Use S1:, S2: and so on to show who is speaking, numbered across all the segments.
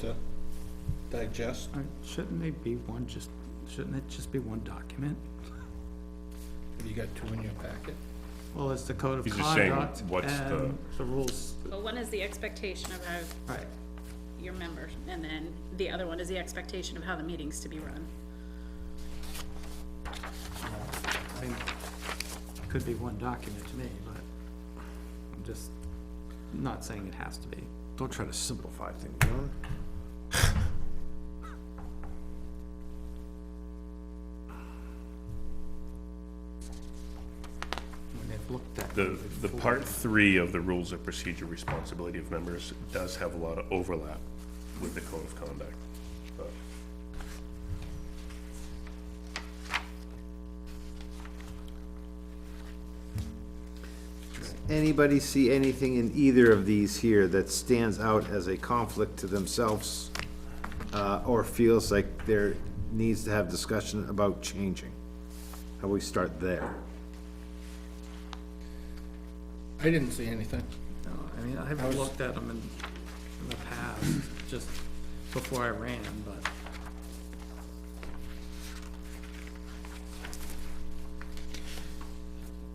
S1: to digest.
S2: Uh, Shouldn't they be one, just, shouldn't it just be one document?
S1: Have You got two in your packet?
S2: Well, it's the code of
S3: He's just saying
S2: conduct
S3: what's the-
S2: and the rules,
S4: Well, one is the expectation of how
S2: right,
S4: your members, and then the other one is the expectation of how the meeting's to be run.
S2: I mean, could be one document to me, but I'm just not saying it has to be.
S5: Don't try to simplify things, John.
S2: When they've looked at.
S3: The, the part three of the rules of procedure responsibility of members does have a lot of overlap with the code of conduct. but-
S5: Anybody see anything in either of these here that stands out as a conflict to themselves? Uh, or feels like there needs to have discussion about changing? How we start there?
S1: I didn't see anything.
S2: No, I mean, I've looked at them in, in the past, just before I ran, but.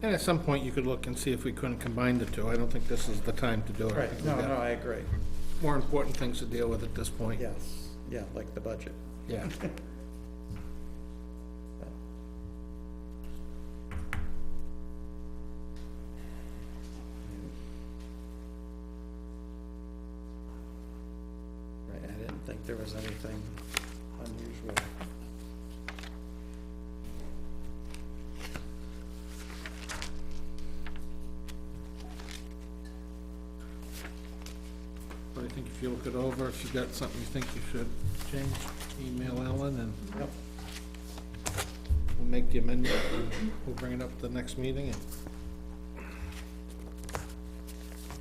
S1: And at some point, you could look and see if we couldn't combine the two. I don't think this is the time to do it. I think we've got
S2: I agree,
S1: More important things to deal with at this point.
S2: yes, yeah, like the budget.
S1: Yeah.
S2: Right, I didn't think there was anything unusual.
S1: But I think if you look it over, if you got something you think you should change, email Ellen and
S2: Yep.
S1: we'll make the amendment. We'll bring it up at the next meeting and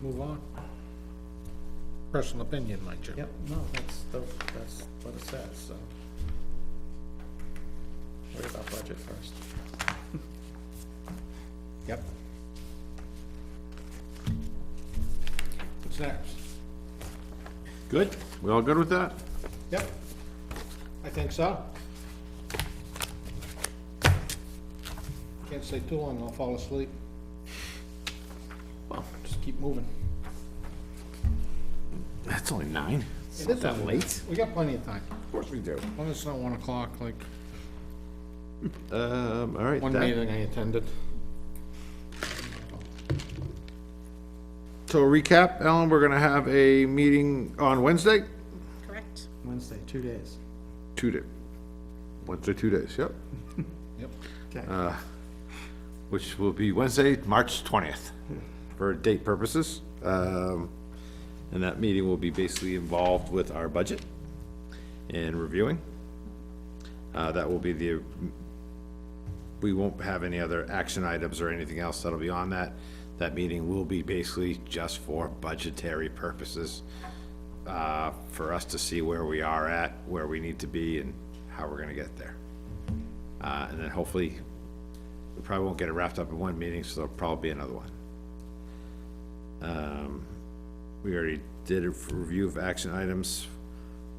S1: move on. Personal opinion, mind you.
S2: Yep, no, that's, the that's what it says, so. Worry about budget first.
S1: Yep. What's next?
S5: Good? We all good with that?
S1: Yep. I think so. Can't stay too long, I'll fall asleep. Well, just keep moving.
S5: That's only nine.
S1: It is that late? We got plenty of time.
S5: Of course we do.
S1: Well, it's not one o'clock, like
S5: Um, all right.
S1: one
S5: that-
S1: meeting I attended.
S5: So recap, Ellen, we're gonna have a meeting on Wednesday?
S4: Correct?
S2: Wednesday, two days.
S5: Two day, Wednesday, two days, yep.
S1: Yep.
S2: Okay.
S5: which will be Wednesday, March 20th, for date purposes. Um, And that meeting will be basically involved with our budget and reviewing. Uh, That will be the, we won't have any other action items or anything else that'll be on that. That meeting will be basically just for budgetary purposes, uh, for us to see where we are at, where we need to be, and how we're gonna get there. Uh, And then hopefully, we probably won't get it wrapped up in one meeting, so there'll probably be another one. Um, We already did a review of action items,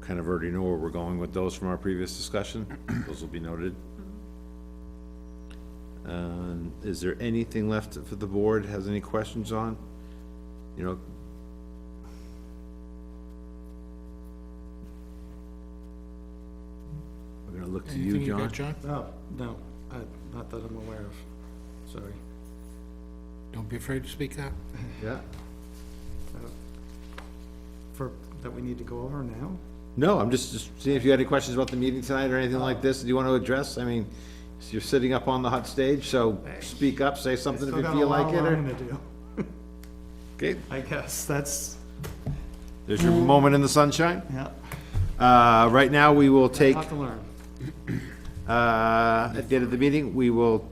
S5: kind of already know where we're going with those from our previous discussion, those will be noted. Um, is there anything left for the board, has any questions on? You know? We're gonna look to you,
S1: Anything you
S5: John.
S1: got, John?
S2: No, Oh, no, I, not that I'm aware of, sorry.
S1: Don't be afraid to speak up.
S5: Yeah.
S2: Uh, For, that we need to go over now?
S5: No, I'm just, just seeing if you had any questions about the meeting tonight or anything like this, do you want to address? I mean, you're sitting up on the hot stage, so speak up, say something if
S2: Still
S5: you
S2: got a
S5: feel
S2: lot
S5: like it,
S2: I'm
S5: or,
S2: gonna do,
S5: okay,
S2: I guess, that's,
S5: there's your moment in the sunshine.
S2: yeah,
S5: Uh, right now, we will take,
S2: lot to learn.
S5: uh, at the end of the meeting, we will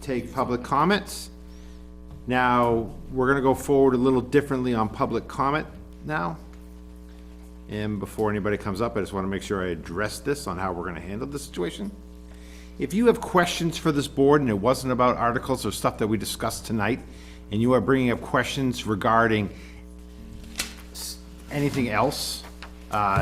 S5: take public comments. Now, we're gonna go forward a little differently on public comment now. And before anybody comes up, I just wanna make sure I address this on how we're gonna handle this situation. If you have questions for this board and it wasn't about articles or stuff that we discussed tonight, and you are bringing up questions regarding s- anything else, uh,